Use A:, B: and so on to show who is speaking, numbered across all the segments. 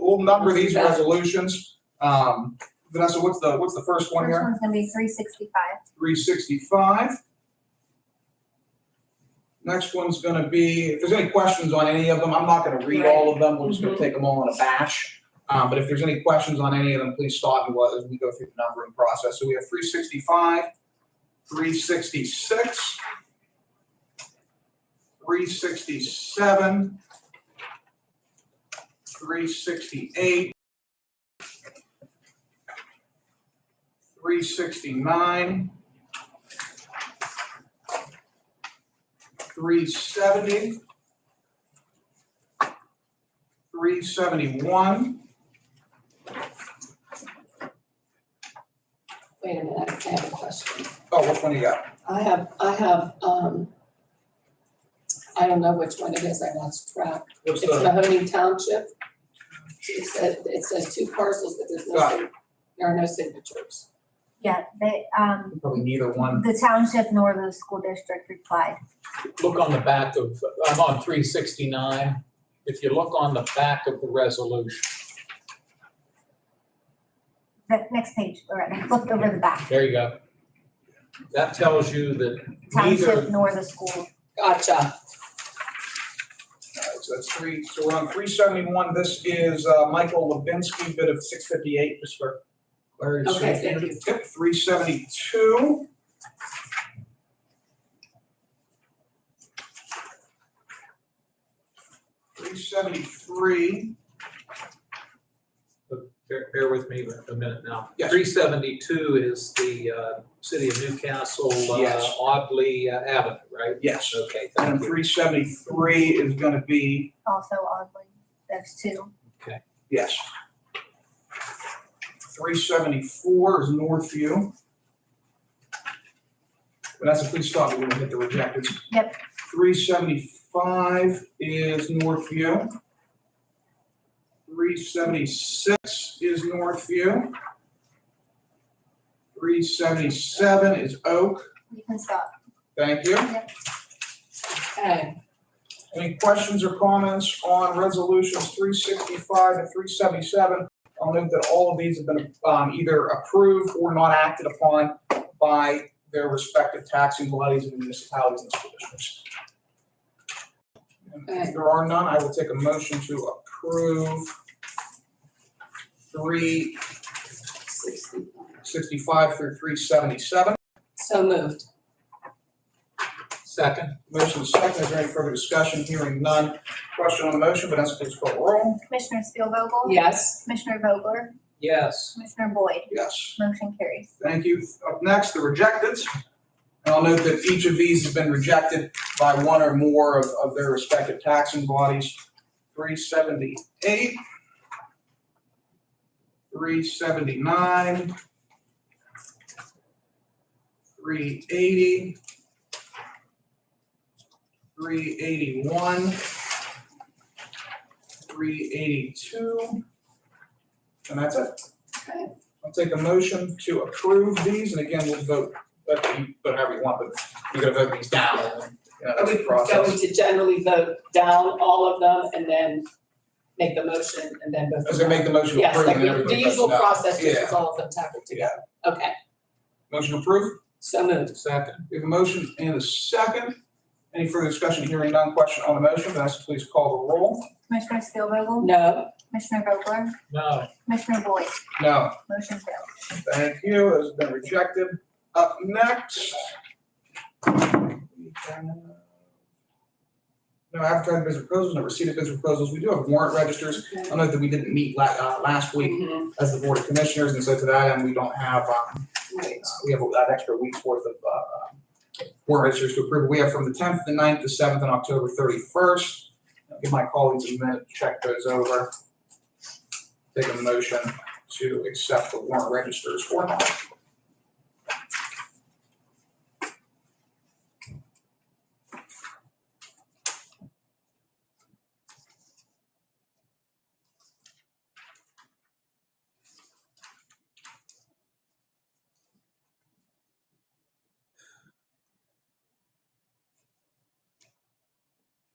A: we'll number these resolutions. Um, Vanessa, what's the, what's the first one
B: First
A: here?
B: one's gonna be three sixty-five.
A: Three sixty-five. Next one's gonna be, if there's any questions on any of them, I'm not gonna read all of them, we're just gonna take them all in a batch. Um, but if there's any questions on any of them, please stop me while- as we go through the numbering process. So we have three sixty-five, three sixty-six, three sixty-seven, three sixty-eight, three sixty-nine, three seventy, three seventy-one,
C: Wait a minute, I have a question.
A: oh, which one do you got?
C: I have, I have, um, I don't know which one it is, I lost track.
A: What's
C: It's
A: the,
C: Mahoney Township. It says, it says two parcels, but there's no,
A: Got
C: sig- there are no signatures.
B: Yeah, they, um,
A: probably neither one.
B: the township nor the school district replied.
D: look on the back of, I'm on three sixty-nine. If you look on the back of the resolution,
B: The next page, Loretta, flip over the back.
D: there you go. That tells you that
B: Township
D: neither,
B: nor the school.
C: Gotcha.
A: All right, so that's three, so we're on three seventy-one, this is, uh, Michael Levinsky, bid of six fifty-eight, just for Larry's.
C: Okay, thank you.
A: Yep, three seventy-two. Three seventy-three,
D: bear, bear with me a minute now.
A: Yes.
D: Three seventy-two is the, uh, city of Newcastle, uh,
A: Yes.
D: Audley uh, Avenue, right?
A: yes,
D: Okay,
A: and
D: thank you.
A: three seventy-three is gonna be,
B: also oddly, those two.
A: yes. Three seventy-four is Northview. Vanessa, please stop, we're gonna hit the rejected.
B: Yep.
A: Three seventy-five is Northview. Three seventy-six is Northview. Three seventy-seven is Oak,
B: You can stop.
A: thank you.
C: Okay,
A: Any questions or comments on resolutions three sixty-five to three seventy-seven? I'll note that all of these have been, um, either approved or not acted upon by their respective taxing bodies and municipalities and school districts. And If there are none, I will take a motion to approve three
C: sixty-five.
A: sixty-five through three seventy-seven.
C: So moved.
D: Second,
A: Motion is second, is there any further discussion? Hearing none. Question on the motion, Vanessa, please call the roll.
B: Commissioner Spielvogel?
C: Yes.
B: Commissioner Vogler?
D: yes,
B: Commissioner Boyd?
A: Yes.
B: Motion carries.
A: Thank you. Up next, the rejecteds. And I'll note that each of these has been rejected by one or more of, of their respective taxing bodies. Three seventy-eight, three seventy-nine, three eighty, three eighty-one, three eighty-two, and that's it.
C: Okay.
A: I'll take a motion to approve these, and again, we'll vote, but you, but however you want, but you're gonna vote these down, and, you know, that's the
C: Are we going
A: process.
C: to generally vote down all of them and then make the motion and then vote?
A: I was gonna make the motion to
C: Yes,
A: approve,
C: like
A: and
C: the- the
A: everybody votes
C: usual
A: no.
C: process, just
A: Yeah.
C: as all of them tackled together. Okay,
A: Motion approved,
C: so moved.
D: second,
A: we have a motion and a second. Any further discussion, hearing none, question on the motion, Vanessa, please call the roll.
B: Commissioner Spielvogel?
C: No,
B: Commissioner Vogler?
D: no,
B: Commissioner Boyd?
A: No,
B: Motion fails.
A: thank you, it has been rejected. Up next. No, advertising bids and proposals, no receipt of bids and proposals, we do have warrant registers, I know that we didn't meet la- uh, last week,
C: Mhm.
A: as the Board of Commissioners, and so to that end, we don't have, um,
C: Right.
A: uh, we have that extra week's worth of, uh, warrant registers to approve. We have from the tenth, the 9th, the seventh, and October thirty-first. Give my colleagues a minute to check those over. Take a motion to accept the warrant registers or not.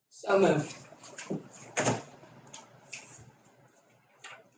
C: So moved.